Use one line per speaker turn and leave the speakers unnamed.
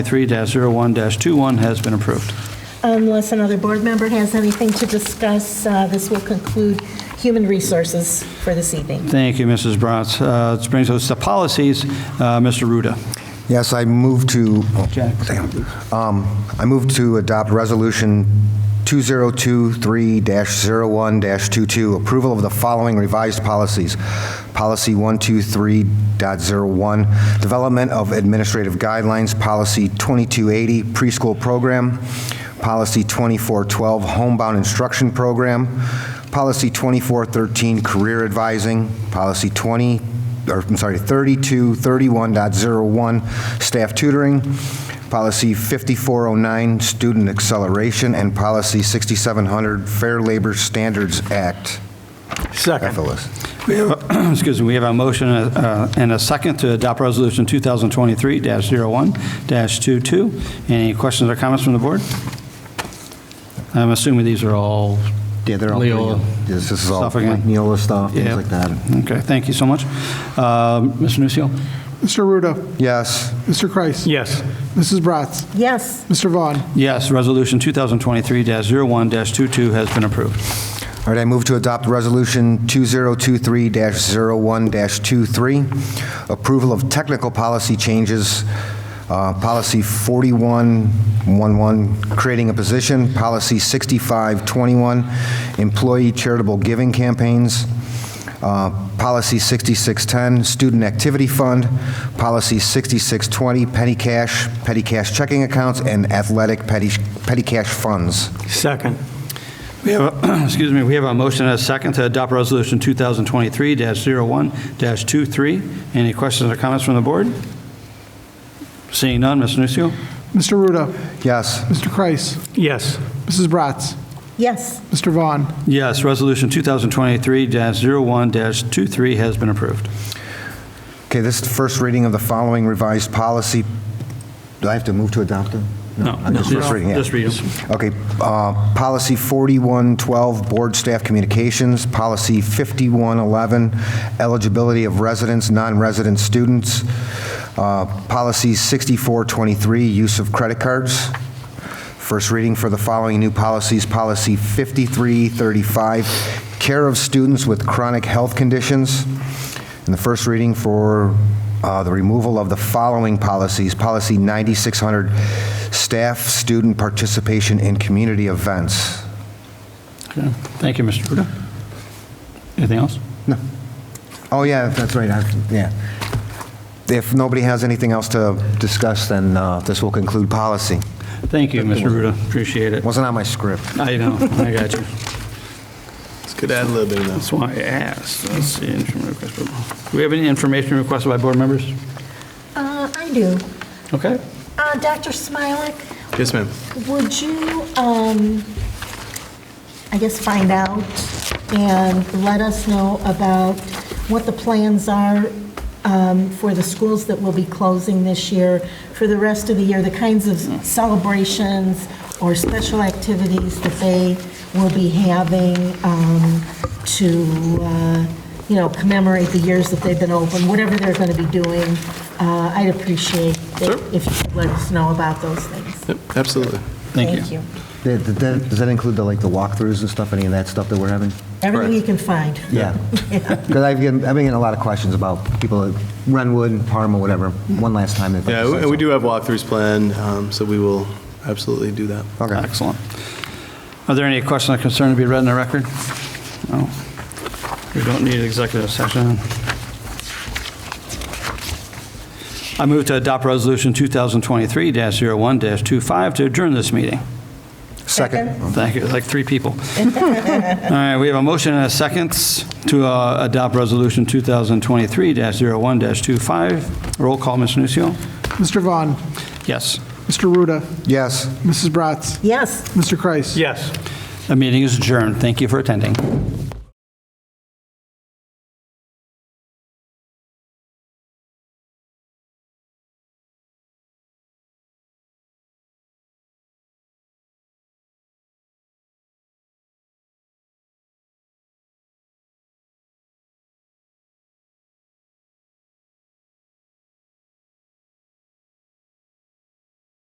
3-01-21 has been approved.
Unless another board member has anything to discuss, uh, this will conclude human resources for this evening.
Thank you, Mrs. Bratz. Uh, This brings us to policies. Uh, Mr. Ruda.
Yes, I move to, oh,
Jack.
damn. Um, I move to adopt Resolution 2023-01-22, approval of the following revised policies. Policy 123.01, Development of Administrative Guidelines, Policy 2280, Preschool Program, Policy 2412, Homebound Instruction Program, Policy 2413, Career Advising, Policy 20, or I'm sorry, 3231.01, staff tutoring, policy 5409, student acceleration, and policy 6700, Fair Labor Standards Act.
Second.
FLS.
We have- Excuse me, we have a motion uh, and a second to adopt Resolution 2023-01-22. Any questions or comments from the board? I'm assuming these are all
Yeah, they're all pretty-
Leola
Yes, This is all
stuff again.
Neola stuff,
Yeah.
things like that.
Okay, thank you so much. Uh, Mr. Nucio?
Mr. Ruda.
Yes,
Mr. Kreis.
Yes.
Mrs. Bratz.
Yes,
Mr. Vaughn.
Yes, Resolution 2023-01-22 has been approved.
All right, I move to adopt Resolution 2023-01-23, approval of technical policy changes, uh, Policy 4111, creating a position, Policy 6521, employee charitable giving campaigns, uh, Policy 6610, student activity fund, Policy 6620, petty cash, petty cash checking accounts, and athletic petty petty cash funds.
Second.
We have, a- excuse me, we have a motion and a second to adopt Resolution 2023-01-23. Any questions or comments from the board? Seeing none, Mr. Nucio?
Mr. Ruda.
Yes.
Mr. Kreis.
Yes.
Mrs. Bratz.
yes,
Mr. Vaughn.
Yes, Resolution 2023-01-23 has been approved.
Okay, this is the first reading of the following revised policy. Do I have to move to adopt them? Just first reading, yeah.
Just read them.
Okay, uh, Policy 4112, Board Staff Communications, Policy 5111, Eligibility of Residents, Non-Resident Students, uh, Policy 6423, Use of Credit Cards. First reading for the following new policies, Policy 5335, Care of Students with Chronic Health Conditions, and the first reading for uh, the removal of the following policies, Policy 9600, Staff Student Participation in Community Events.
Okay. Thank you, Mr. Ruda. Anything else?
Oh, yeah, that's right, I- yeah. If nobody has anything else to discuss, then uh, this will conclude policy.
Thank you, Mr. Ruda. Appreciate it.
Wasn't on my script.
I know, I got you.
Let's get ad lib in
That's why I asked. Let's see, information request. Do we have any information requested by board members?
Uh, I do.
Okay.
Uh, Dr. Smilek,
Yes, ma'am.
would you, um, I guess, find out and let us know about what the plans are um, for the schools that will be closing this year, for the rest of the year, the kinds of celebrations or special activities that they will be having um, to, uh, you know, commemorate the years that they've been open, whatever they're going to be doing. Uh, I'd appreciate
Sure.
it if you could let us know about those things.
Yep, Absolutely.
Thank you.
Did- did that- Does that include the, like, the walkthroughs and stuff, any of that stuff that we're having?
Everything you can find.
Yeah. Because I've been, I've been getting a lot of questions about people at Renwood, Parma, whatever, one last time. if I
Yeah,
decide
and we
so.
do have walkthroughs planned, um, so we will absolutely do that.
Okay.
Excellent. Are there any questions or concern to be read in the record? No. We don't need executive session. I move to adopt Resolution 2023-01-25 to adjourn this meeting.
Second.
Thank you, like three people. All right, we have a motion and a second to uh, adopt Resolution 2023-01-25. Roll call, Mr. Nucio.
Mr. Vaughn.
Yes.
Mr. Ruda.
Yes.
Mrs. Bratz.
Yes.
Mr. Kreis.
Yes.
The meeting is adjourned. Thank you for attending.